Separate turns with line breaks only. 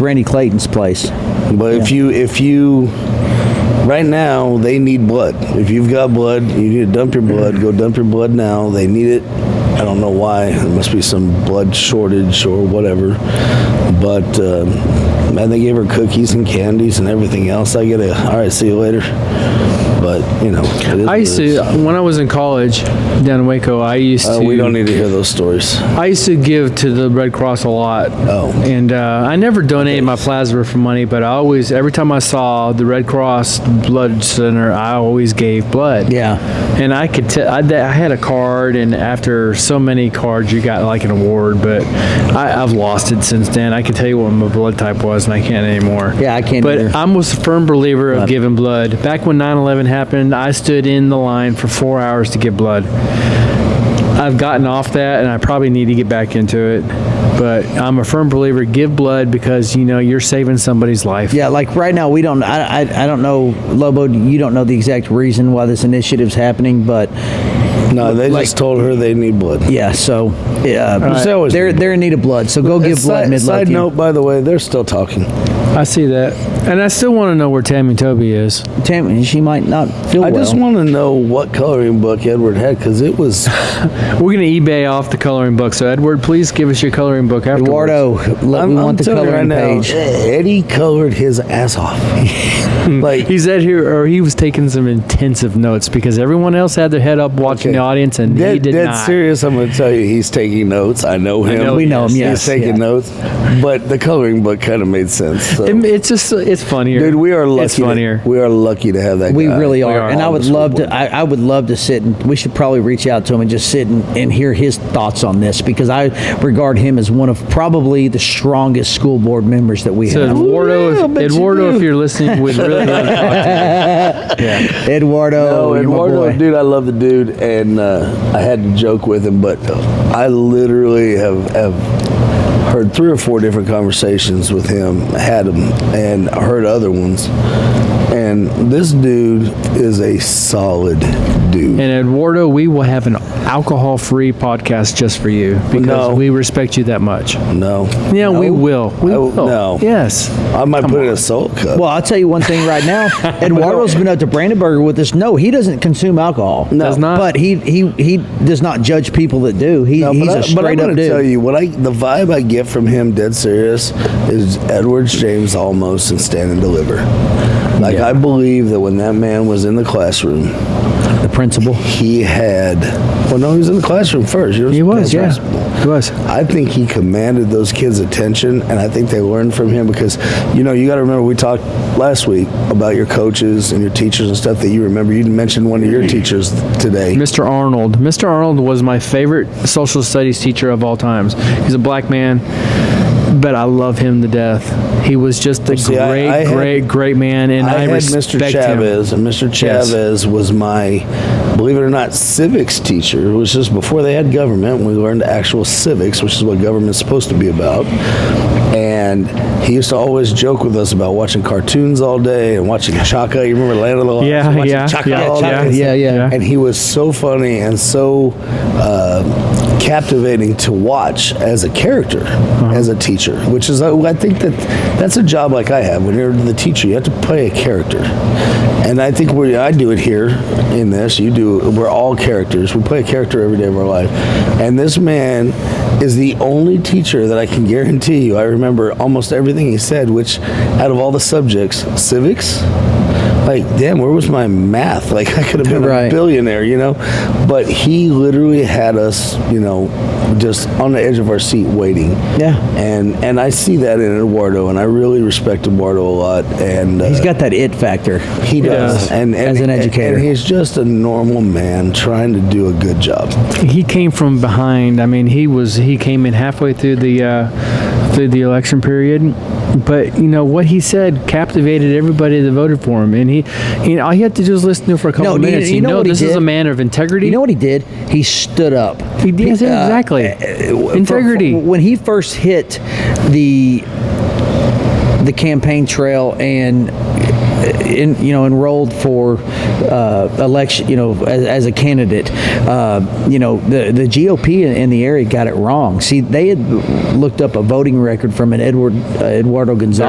Randy Clayton's place.
But if you if you right now they need blood. If you've got blood, you need to dump your blood. Go dump your blood now. They need it. I don't know why. There must be some blood shortage or whatever. But uh, man, they gave her cookies and candies and everything else. I get a all right. See you later. But you know, it is
I used
what it is.
to, when I was in college down in Waco, I used
Uh,
to.
we don't need to hear those stories.
I used to give to the Red Cross a lot.
Oh.
And uh, I never donated my plasma for money, but I always, every time I saw the Red Cross Blood Center, I always gave blood.
Yeah.
And I could tell, I, that- I had a card, and after so many cards, you got like an award, but I, I've lost it since then. I can tell you what my blood type was, and I can't anymore.
Yeah, I can't
But
either.
I'm was a firm believer of giving blood. Back when 9 11 happened, I stood in the line for four hours to get blood. I've gotten off that, and I probably need to get back into it. But I'm a firm believer give blood because, you know, you're saving somebody's life.
Yeah, like right now, we don't, I, I, I don't know, Lobo, you don't know the exact reason why this initiative's happening, but
No, they
Like-
just told her they need blood.
yeah, so
There's
uh,
always
they're,
need
they're in need of blood, so go give blood
side,
mid
side note, by the way, they're still talking.
I see that. And I still want to know where Tammy Toby is.
Tammy, she might not feel
I
well.
just want to know what coloring book Edward had because it was
We're gonna eBay off the coloring book. So Edward, please give us your coloring book afterwards.
Eduardo, let, we want the
telling you
coloring
right
page.
Now, Eddie colored his ass off. like
He's out here, or he was taking some intensive notes because everyone else had their head up watching
Okay.
the audience, and he
dead,
did
dead
not.
serious. I'm gonna tell you, he's taking notes. I know him.
know
We know him,
He's
yes.
taking
yeah.
notes, but the coloring book kind of made sense. So.
It- it's just, it's funnier.
Dude, we are lucky.
It's funnier.
To, we are lucky to have that.
We
guy
really are.
are
and I
on
would
the school
love
board.
to. I, I would love to sit and we should probably reach out to him and just sit and, and hear his thoughts on this because I regard him as one of probably the strongest school board members that we
so
have.
Eduardo,
yeah, I
if,
bet you
Eduardo,
do.
if you're listening, would really love to talk to
Eduardo,
No,
Oh, you're my
Eduardo,
boy.
Oh, dude, I love the dude, and uh, I had to joke with him, but I literally have have heard three or four different conversations with him, had him, and heard other ones, and this dude is a solid dude.
And Eduardo, we will have an alcohol-free podcast just for you because
No.
we respect you that much.
no,
Yeah, we
No.
will. We
I-
will.
No,
Yes.
I might put it in a salt cup.
Well, I'll tell you one thing right now. Eduardo's been up to Brandenburger with us. No, he doesn't consume alcohol. No,
Does not.
But he he he does not judge people that do. He,
No,
he's a
but I, but I'm
straight
gonna
up dude.
tell you what I the vibe I get from him, dead serious, is Edwards James almost and stand and deliver. Like I believe that when that man was in the classroom,
the principal.
he had. Well, no, he was in the classroom first.
He was.
yes.
Yeah. He was.
I think he commanded those kids' attention, and I think they learned from him because, you know, you got to remember we talked last week about your coaches and your teachers and stuff that you remember. You mentioned one of your teachers today.
Mr. Arnold. Mr. Arnold was my favorite social studies teacher of all times. He's a black man, but I love him to death. He was just a
see, I-
great,
I had-
great, great man, and I,
I, had
respect
Mr. Chavez, and Mr.
Yes.
Chavez was my, believe it or not, civics teacher. It was just before they had government. We learned actual civics, which is what government's supposed to be about. And he used to always joke with us about watching cartoons all day and watching Chaka. You remember Land of the Lost?
Yeah,
watching
yeah,
Chaka
yeah,
all
Chaka,
day.
yeah, yeah.
And he was so funny and so uh, captivating to watch as a character,
Uh-huh.
as a teacher, which is, uh, I I think that that's a job like I have. When you're the teacher, you have to play a character. And I think we, I do it here in this. You do, we're all characters. We play a character every day of our life. And this man is the only teacher that I can guarantee you. I remember almost everything he said, which out of all the subjects, civics, like, damn, where was my math? Like, I could have been
Right.
a billionaire, you know? But he literally had us, you know, just on the edge of our seat waiting.
Yeah.
And and I see that in Eduardo, and I really respect Eduardo a lot. And uh,
He's got that it factor.
he does.
does,
And, and
as an educator.
and he's just a normal man trying to do a good job.
He came from behind. I mean, he was he came in halfway through the uh, through the election period, but you know what he said captivated everybody that voted for him. And he, you know, all you have to do is listen to him for a couple
No, you-
minutes.
you
You,
know
know,
what he
this is a
did?
man of integrity.
You know what he did? He stood up.
He did,
Uh,
exactly.
for-
Integrity.
for- when he first hit the the campaign trail and uh, in, you know enrolled for uh, election, you know, as, as a candidate, uh, you know, the the GOP in, in the area got it wrong. See, they had looked up a voting record from an Edward uh, Eduardo Gonzalez.